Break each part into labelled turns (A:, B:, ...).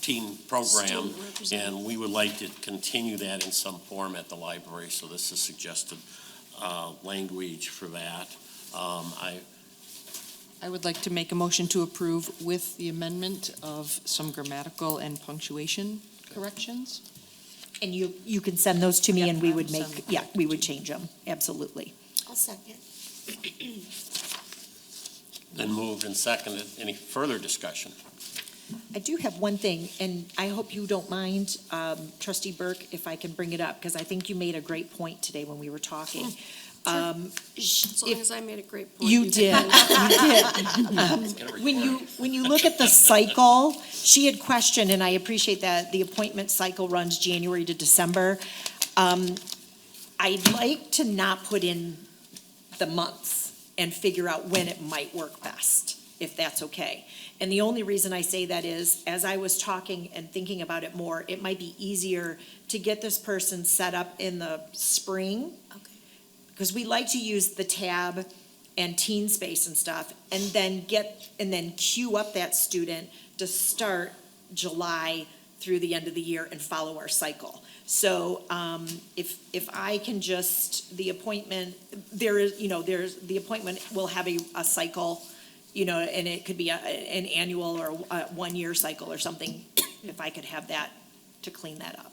A: teen program,
B: Student representative.
A: and we would like to continue that in some form at the library, so this is suggested uh, language for that. Um, I,
B: I would like to make a motion to approve with the amendment of some grammatical and punctuation corrections.
C: And you, you can send those to me
B: Yeah,
C: and we
B: I
C: would
B: will send
C: make, yeah, we would change them, absolutely.
D: I'll second.
A: then moved and seconded. Any further discussion?
C: I do have one thing, and I hope you don't mind, um, trustee Burke, if I can bring it up, because I think you made a great point today when we were talking. Um, sh-
D: As long
C: if
D: as I made a great point.
C: you did,
D: can-
C: you did.
A: Get a
C: When
A: report.
C: you, when you look at the cycle, she had questioned, and I appreciate that, the appointment cycle runs January to December. Um, I'd like to not put in the months and figure out when it might work best, if that's okay. And the only reason I say that is, as I was talking and thinking about it more, it might be easier to get this person set up in the spring.
D: Okay.
C: Because we like to use the tab and teen space and stuff, and then get, and then queue up that student to start July through the end of the year and follow our cycle. So, um, if, if I can just, the appointment, there is, you know, there's, the appointment will have a, a cycle, you know, and it could be a, an annual or a one-year cycle or something, if I could have that to clean that up.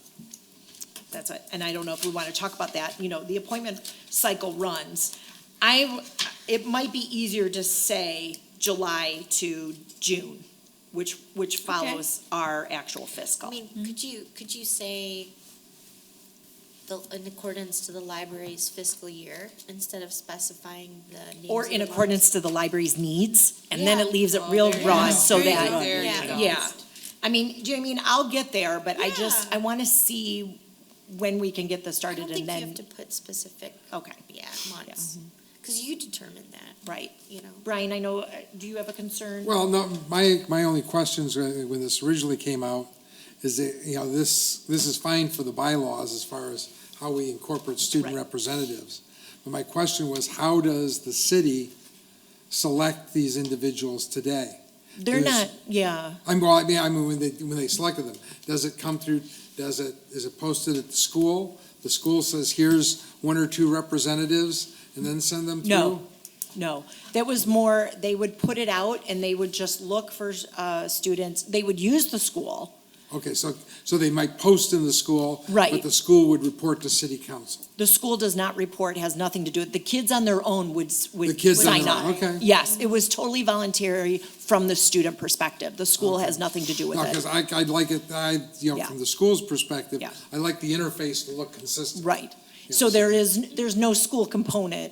C: That's it, and I don't know if we want to talk about that, you know, the appointment cycle runs. I, it might be easier to say July to June, which, which follows our actual
E: I
C: fiscal.
E: mean, could you, could you say the, in accordance to the library's fiscal year instead of specifying the names?
C: Or
E: of
C: in
E: the months?
C: accordance to the library's needs, and then it
E: Yeah.
C: leaves it
B: Oh,
C: real
B: there you
C: raw,
B: go.
C: so
B: There you
C: that.
B: go. There
E: you go.
C: Yeah, I mean, do you know what I mean, I'll get there, but I just,
E: Yeah.
C: I want to see when we can get this
E: I
C: started
E: don't
C: and
E: think you have
C: then, Mm-hmm.
E: to put specific,
C: okay,
E: yeah, months, because you determine that,
C: right.
E: you know.
C: Brian, I know, uh, do you have a concern?
F: Well, no, my, my only questions uh, when this originally came out is that, you know, this, this is fine for the bylaws as far as how we incorporate student
C: Right.
F: representatives. But my question was, how does the city select these individuals today?
C: They're not,
F: there's-
C: yeah,
F: I'm, well, I mean, I mean, when they, when they selected them, does it come through, does it, is it posted at the school? The school says, here's one or two representatives, and then send them through?
C: No. No, that was more, they would put it out and they would just look for uh, students, they would use the school.
F: Okay, so, so they might post in the school.
C: Right.
F: But the school would report to city council.
C: The school does not report, has nothing to do with, the kids on their own would, s-
F: The
C: would
F: kids on
C: sign
F: their
C: up.
F: own, okay.
C: Yes, it was totally voluntary from the student perspective. The school has nothing to do with
F: No,
C: it.
F: because I, I'd like it, I, you know,
C: Yeah.
F: from the school's perspective,
C: Yeah.
F: I like the interface to look consistent.
C: Right.
F: you know,
C: So there is, there's no school component.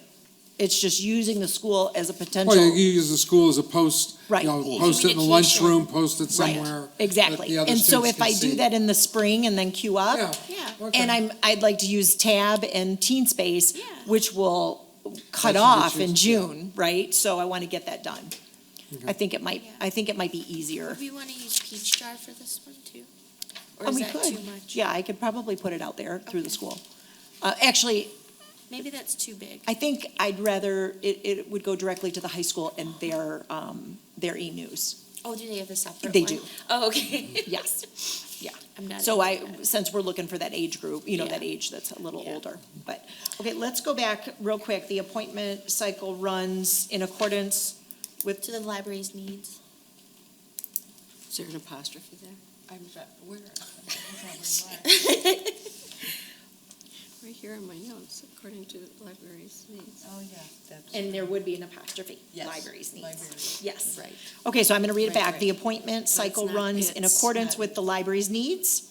C: It's just using the school as a potential.
F: Well, you you use the school as a post,
C: Right.
F: you know, post it in the lunchroom, post it
C: Right.
F: somewhere. that
C: Exactly.
F: the other
C: And so
F: students
C: if
F: can
C: I do
F: see.
C: that in the spring and then queue up,
F: Yeah.
E: Yeah.
F: okay.
C: And I'm, I'd like to use tab and teen space,
E: Yeah.
C: which will cut
F: That's what you
C: off in
F: choose, yeah.
C: June, right? So I want to get that done. I think it might,
E: Yeah.
C: I think it might be easier.
E: Do we want to use peach jar for this one too? Or
C: And Oh,
E: is
C: we
E: that
C: could,
E: too much?
C: yeah, I could probably put it out there through the
E: Okay.
C: school. Uh, actually,
E: Maybe that's too big.
C: I think I'd rather, it, it would go directly to the high school and their, um, their e-news.
E: Oh, do they have a separate one?
C: They do.
E: Oh, okay.
C: Yes, yeah.
E: I'm not
C: So I,
E: into that.
C: since we're looking for that age group, you know, that
E: Yeah.
C: age that's a little
E: Yeah.
C: older. But, okay, let's go back real quick. The appointment cycle runs in accordance with,
E: To the library's needs.
B: Is there an apostrophe there? I'm, where?
D: Right here in my notes, according to the library's needs.
B: Oh, yeah, that's.
C: and there would be an apostrophe,
B: Yes,
C: libraries needs.
B: libraries.
C: Yes.
B: Right.
C: Okay, so I'm gonna read it
B: Right,
C: back.
B: right.
C: The appointment cycle
D: not-
C: runs in
D: it's
C: accordance
B: not-
C: with the library's needs,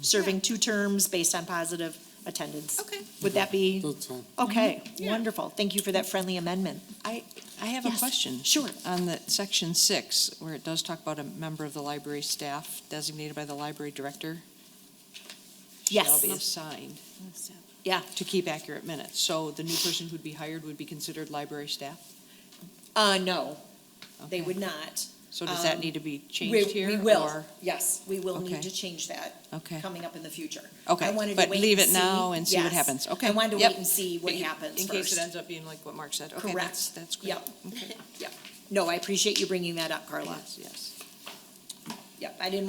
C: serving two terms based on positive attendance.
E: Okay.
C: Would that be,
F: That's fine.
C: okay, wonderful. Thank you for that friendly amendment.
B: I, I have
C: Mm-hmm.
B: a
C: Yes,
B: question.
C: sure.
B: On the section six, where it does talk about a member of the library staff designated by the library director.
C: Yes.
B: Shall be assigned
C: Yeah.
B: to keep accurate minutes. So the new person who'd be hired would be considered library staff?
C: Uh, no, they
B: Okay.
C: would not.
B: So does that
C: um,
B: need to be
C: We-
B: changed here?
C: We will,
B: or-
C: yes, we will need
B: Okay.
C: to change that
B: Okay,
C: coming up in the future. I
B: okay,
C: wanted to
B: but
C: wait
B: leave
C: and
B: it now
C: see.
B: and see what
C: Yes.
B: happens, okay?
C: I wanted to
B: Yep.
C: wait and see what
B: In-
C: happens
B: In case it
C: first.
B: ends up being like what Mark said, okay,
C: Correct.
B: that's, that's great.
C: Yep.
B: Okay.
C: No, I appreciate you bringing that up, Carla.
B: Yes, yes.
C: Yep, I didn't